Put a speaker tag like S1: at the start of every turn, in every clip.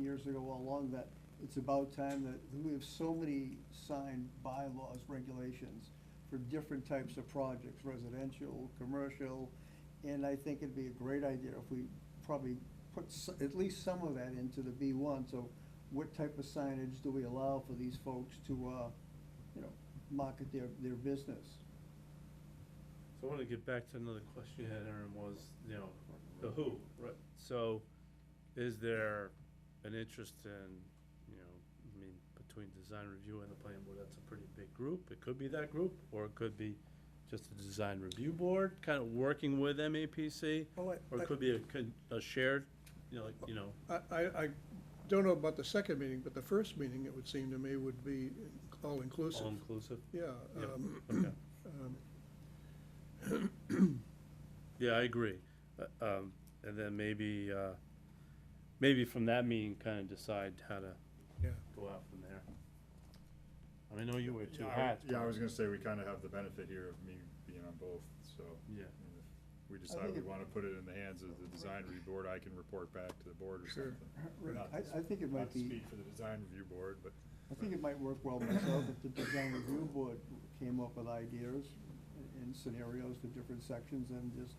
S1: years ago along that it's about time that, we have so many signed bylaws, regulations for different types of projects, residential, commercial, and I think it'd be a great idea if we probably put s- at least some of that into the B one, so what type of signage do we allow for these folks to, uh, you know, market their, their business?
S2: So I wanna get back to another question you had, Aaron, was, you know, the who, right? So, is there an interest in, you know, I mean, between design review and the planning board, that's a pretty big group. It could be that group, or it could be just the design review board, kind of working with MAPC,
S3: Well,
S2: or it could be a, con- a shared, you know, like, you know,
S3: I, I, I don't know about the second meeting, but the first meeting, it would seem to me, would be all-inclusive.
S2: all inclusive.
S3: Yeah.
S2: Yep,
S3: um,
S2: okay.
S3: um,
S2: Yeah, I agree. Uh, Um, and then maybe, uh, maybe from that meeting, kind of decide how to
S3: Yeah.
S2: go out from there. I mean, I know you wear two
S4: Yeah, I-
S2: hats.
S4: Yeah, I
S2: but-
S4: was gonna say, we kinda have the benefit here of me being on both, so.
S2: Yeah.
S4: I mean, if We decide we
S1: it-
S4: wanna put it in the hands of the design review board, I can report back to the board or
S3: Sure.
S4: something.
S1: Rick,
S4: Not to
S1: I, I think it might
S4: Not to
S1: be.
S4: speak for the design review board, but.
S1: I think it might work well myself if the design review board came up with ideas and scenarios for different sections and just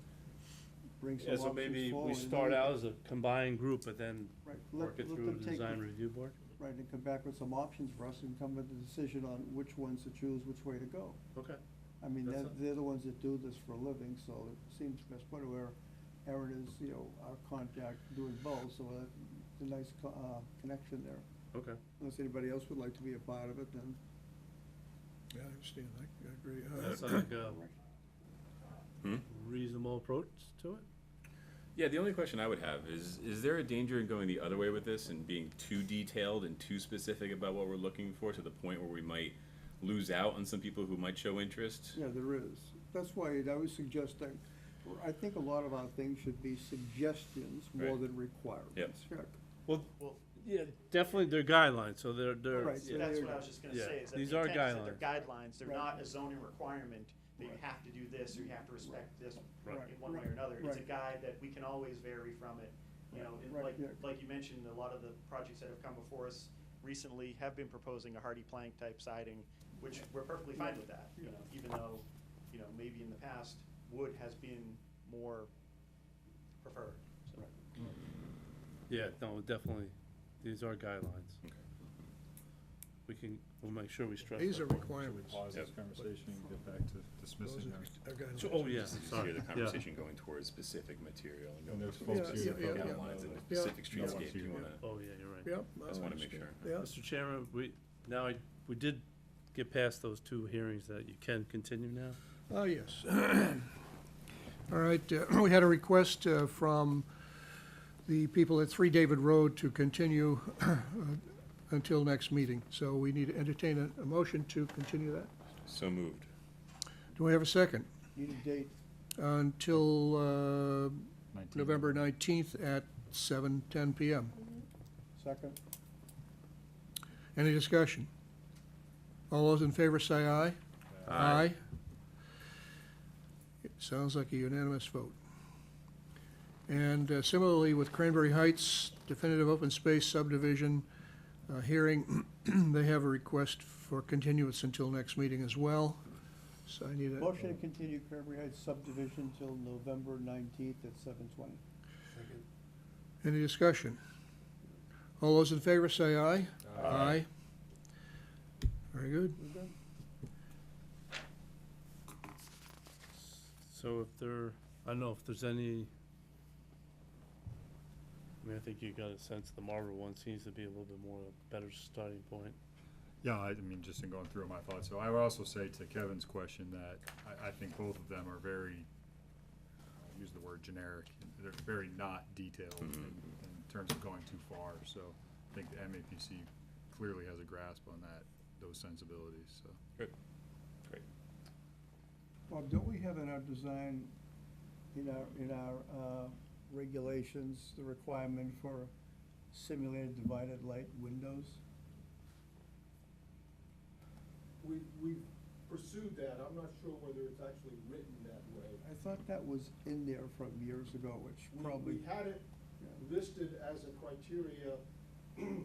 S1: bring some
S2: Yeah,
S1: options
S2: so
S1: forward.
S2: maybe we
S1: and
S2: start
S1: then-
S2: out as a combined group, but then
S1: Right, let-
S2: work it
S1: let
S2: through
S1: them
S2: the
S1: take
S2: design
S1: the-
S2: review board.
S1: Right, and come back with some options for us and come with a decision on which ones to choose, which way to go.
S2: Okay.
S1: I mean,
S2: That's
S1: they're,
S2: a-
S1: they're the ones that do this for a living, so it seems best part where Aaron is, you know, our contact doing both, so that's a nice co- uh, connection there.
S2: Okay.
S1: Unless anybody else would like to be a part of it, then.
S3: Yeah, I understand, I, I agree. Uh,
S2: That's like a
S5: Hmm?
S2: reasonable approach to it?
S5: Yeah, the only question I would have is, is there a danger in going the other way with this and being too detailed and too specific about what we're looking for to the point where we might lose out on some people who might show interest?
S1: Yeah, there is. That's why I was suggesting, I think a lot of our things should be suggestions more
S5: Right.
S1: than requirements. Yep.
S2: Well, yeah, definitely they're guidelines, so they're, they're.
S1: Right, so
S2: yeah.
S6: That's what I was just gonna
S2: Yeah.
S6: say, is that the
S2: These are
S6: intent is that they're guidelines, they're
S1: Right.
S6: not a zoning requirement, that you have to do this, or you have to respect this
S1: Right.
S6: in one way or another. It's a
S1: Right.
S6: guide that we can always vary from it, you know, and
S1: Right,
S6: like,
S1: yeah.
S6: like you mentioned, a lot of the projects that have come before us recently have been proposing a hardy plank type siding, which we're perfectly fine with that, you know, even though, you know, maybe in the past, wood has been more preferred, so.
S2: Yeah, no, definitely, these are guidelines. We can, we'll make sure we stress
S3: These are
S2: that.
S3: requirements.
S4: Pause this
S5: Yep.
S4: conversation and get back to
S3: Those
S4: dismissing
S3: are
S4: our.
S3: our guidelines.
S2: So- Oh, yeah,
S5: Just
S2: sorry,
S5: hear the
S2: yeah.
S5: conversation going towards specific material and
S4: And
S5: going
S4: there's
S5: towards
S4: folks
S3: Yeah,
S5: specific
S3: yeah, yeah, yeah.
S5: outlines and
S3: Yeah.
S5: specific
S4: No one's
S5: streetscape,
S4: here.
S5: you wanna,
S2: Oh, yeah, you're right.
S3: Yep.
S5: I just wanna make sure.
S3: understand. Yeah.
S2: Mr. Chairman, we, now, I- we did get past those two hearings that you can continue now.
S3: Oh, yes. All right, uh, we had a request uh, from the people at Three David Road to continue uh, until next meeting. So we need to entertain a, a motion to continue that.
S5: So moved.
S3: Do we have a second?
S1: Need a date,
S3: Until, uh,
S4: 19.
S3: November nineteenth at seven ten PM.
S1: second?
S3: Any discussion? All those in favor say aye. Aye. It Sounds like a unanimous vote. And uh, similarly with Cranberry Heights definitive open space subdivision uh, hearing, they have a request for continuance until next meeting as well. So I need a,
S1: Motion to continue Cranberry Heights subdivision till November nineteenth at seven twenty.
S3: any discussion? All those in favor say aye.
S4: Uh,
S3: Aye. Very good.
S2: So if there, I don't know if there's any, I mean, I think you got a sense the Marlboro one seems to be a little bit more, a better starting point.
S4: Yeah, I I mean, just in going through my thoughts, so I would also say to Kevin's question that I, I think both of them are very, I'll use the word generic, they're very not detailed in, in terms of going too far, so I think the MAPC clearly has a grasp on that, those sensibilities, so.
S5: Great.
S1: Bob, don't we have in our design, in our, in our, uh, regulations, the requirement for simulated divided light windows?
S7: We, we've pursued that, I'm not sure whether it's actually written that way.
S1: I thought that was in there from years ago, which
S7: We-
S1: probably.
S7: We had it listed as a criteria